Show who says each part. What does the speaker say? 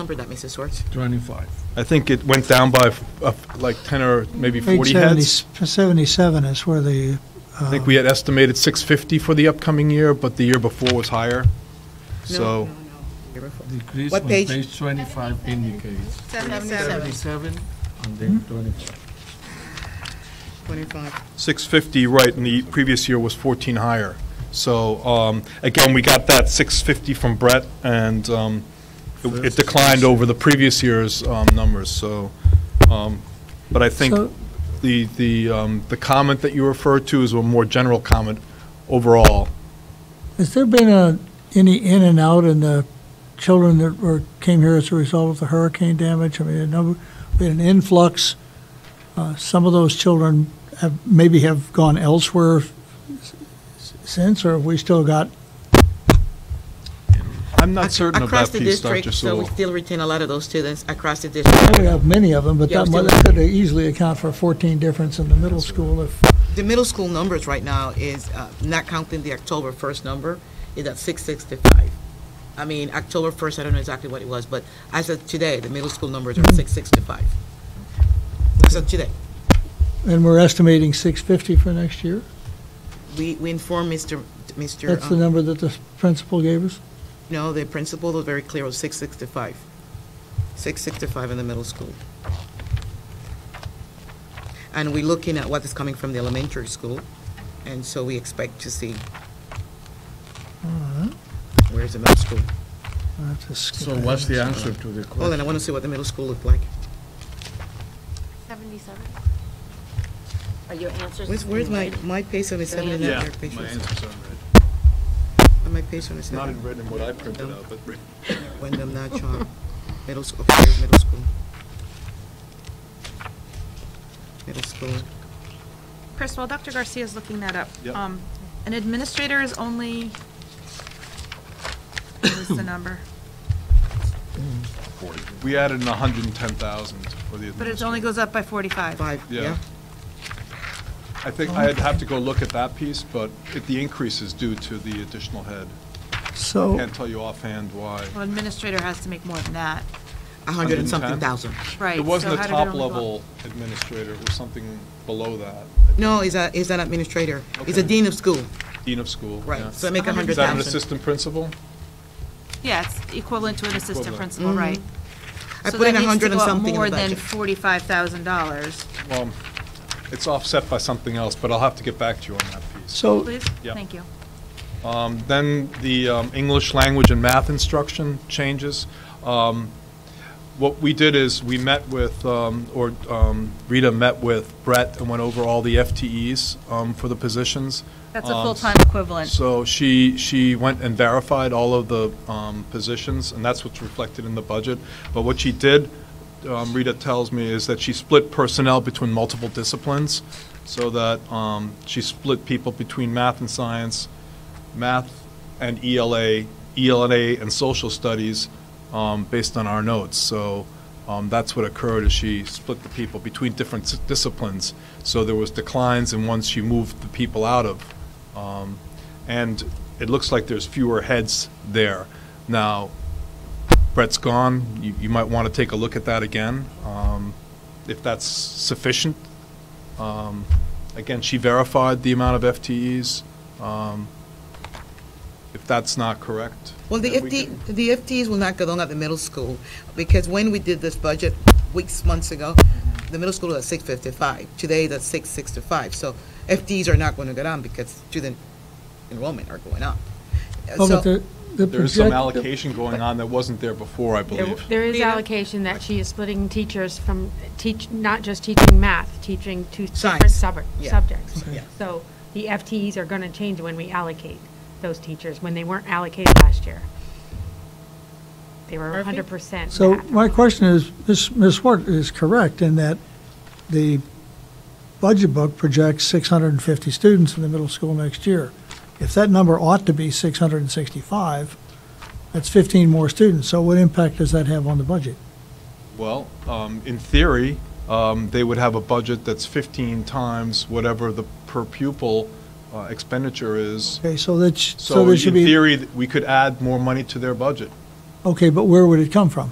Speaker 1: number that, Mrs. Swartz?
Speaker 2: 25.
Speaker 3: I think it went down by uh, like 10 or maybe 40 heads.
Speaker 4: 870 77 is where the,
Speaker 3: I think we had estimated 650 for the upcoming year, but the year before was higher. So
Speaker 2: Decrease
Speaker 1: What
Speaker 2: on
Speaker 1: page?
Speaker 2: page 25 indicates.
Speaker 1: 77,
Speaker 2: 77 and then 25.
Speaker 1: 25.
Speaker 3: 650, right, and the previous year was 14 higher. So um, again, we got that 650 from Brett, and um, it it declined over the previous year's um, numbers, so. um, But I think
Speaker 4: So-
Speaker 3: the, the, um, the comment that you referred to is a more general comment overall.
Speaker 4: has there been a, any in and out in the children that were, came here as a result of the hurricane damage? I mean, a number, we had an influx. Uh, Some of those children have, maybe have gone elsewhere s- s- since, or have we still got,
Speaker 3: I'm not certain of
Speaker 1: Across
Speaker 3: that
Speaker 1: the
Speaker 3: piece,
Speaker 1: district,
Speaker 3: Dr.
Speaker 1: So we
Speaker 3: Sewell.
Speaker 1: still retain a lot of those students across the
Speaker 4: we
Speaker 1: district.
Speaker 4: have many of them, but
Speaker 1: Yeah,
Speaker 4: that
Speaker 1: we
Speaker 4: might, that could easily account for 14 difference in the middle school if,
Speaker 1: The middle school numbers right now is, uh, not counting the October 1st number, is at 665. I mean, October 1st, I don't know exactly what it was, but as of today, the middle school numbers are 665. As of today.
Speaker 4: and we're estimating 650 for next year?
Speaker 1: We, we informed Mr. Mr.
Speaker 4: That's the
Speaker 1: um,
Speaker 4: number that the principal gave us?
Speaker 1: No, the principal was very clear, it was 665. 665 in the middle school. And we're looking at what is coming from the elementary school, and so we expect to see where's the middle school.
Speaker 4: I have to skip
Speaker 2: So
Speaker 4: ahead.
Speaker 2: what's the answer to the
Speaker 1: Well, and
Speaker 2: question?
Speaker 1: I want to see what the middle school looked like.
Speaker 5: 77? Are your answers?
Speaker 1: Where's, where's my, my page on is seven and
Speaker 3: Yeah,
Speaker 1: your page
Speaker 3: my
Speaker 1: on is-
Speaker 3: answers are red.
Speaker 1: My page on is
Speaker 3: Not
Speaker 1: seven.
Speaker 3: in red and what I printed out, but
Speaker 1: Wyndham Natchon, middle school, okay, there's middle school. Middle school.
Speaker 6: Chris, while Dr. Garcia's looking that up.
Speaker 3: Yep.
Speaker 6: um, An administrator is only, what is the number?
Speaker 3: we added in 110,000 for the
Speaker 6: But it only
Speaker 3: administrative.
Speaker 6: goes up by 45.
Speaker 1: Five,
Speaker 3: Yeah.
Speaker 1: yeah?
Speaker 3: I think, I'd have to go look at that piece, but it- the increase is due to the additional head.
Speaker 4: So.
Speaker 3: Can't tell you offhand why.
Speaker 6: Well, administrator has to make more than that,
Speaker 1: A hundred and something
Speaker 3: 110?
Speaker 1: thousand.
Speaker 6: right?
Speaker 3: It
Speaker 6: so
Speaker 3: wasn't a
Speaker 6: how did it
Speaker 3: top
Speaker 6: only go up?
Speaker 3: level administrator, it was something below that,
Speaker 1: No, he's a, he's an administrator. He's a
Speaker 3: Okay.
Speaker 1: dean of school,
Speaker 3: dean of school. yeah.
Speaker 1: right, so make a hundred
Speaker 3: Is that an
Speaker 1: thousand.
Speaker 3: assistant principal?
Speaker 6: Yeah, it's equivalent to an assistant
Speaker 3: Equivalent.
Speaker 6: principal, right?
Speaker 1: Mm-hmm. I
Speaker 6: So
Speaker 1: put in a
Speaker 6: that needs to
Speaker 1: hundred and
Speaker 6: go up
Speaker 1: something in the
Speaker 6: More than
Speaker 1: budget.
Speaker 6: $45,000,
Speaker 3: Well, it's offset by something else, but I'll have to get back to you on that piece.
Speaker 4: So,
Speaker 6: please?
Speaker 3: Yeah.
Speaker 6: Thank you.
Speaker 3: Um, Then the um, English language and math instruction changes. Um, What we did is, we met with, um, or um, Rita met with Brett and went over all the FTEs um, for the positions.
Speaker 6: That's a
Speaker 3: Um,
Speaker 6: full-time equivalent.
Speaker 3: So she, she went and verified all of the um, positions, and that's what's reflected in the budget. But what she did, um, Rita tells me, is that she split personnel between multiple disciplines, so that um, she split people between math and science, math and E ELA, ELA and social studies, um, based on our notes. So um, that's what occurred, is she split the people between different s- disciplines. So there was declines in ones she moved the people out of. Um, And it looks like there's fewer heads there. Now, Brett's gone, you, you might want to take a look at that again, um, if that's sufficient. Um, Again, she verified the amount of FTEs. Um, If that's not correct.
Speaker 1: Well, the
Speaker 3: then we
Speaker 1: FT,
Speaker 3: can-
Speaker 1: the FTs will not go down at the middle school, because when we did this budget weeks, months ago,
Speaker 3: Mm-hmm.
Speaker 1: the middle school was at six fifty-five, today that's six sixty-five, so FTs are not gonna go down because student enrollment are going up. Uh,
Speaker 4: oh, but
Speaker 1: So,
Speaker 4: the, the
Speaker 3: There is some
Speaker 4: project-
Speaker 3: allocation going on that wasn't there before, I
Speaker 5: There
Speaker 3: believe.
Speaker 5: there is
Speaker 1: Rita?
Speaker 5: allocation that she is splitting teachers from, teach, not just teaching math, teaching two different
Speaker 1: Science.
Speaker 5: sub-
Speaker 1: Yeah. Mm-hmm.
Speaker 5: subjects.
Speaker 1: Yeah.
Speaker 5: So the FTEs are going to change when we allocate those teachers, when they weren't allocated last year. They were 100%
Speaker 4: So
Speaker 5: math.
Speaker 4: my question is, Ms. Ms. Swart is correct in that the budget book projects 650 students in the middle school next year. If that number ought to be 665, that's 15 more students. So what impact does that have on the budget?
Speaker 3: Well, um, in theory, um, they would have a budget that's 15 times whatever the per pupil uh, expenditure is.
Speaker 4: Okay, so that's, so
Speaker 3: So in
Speaker 4: there should be,
Speaker 3: theory, th- we could add more money to their budget.
Speaker 4: okay, but where would it come from?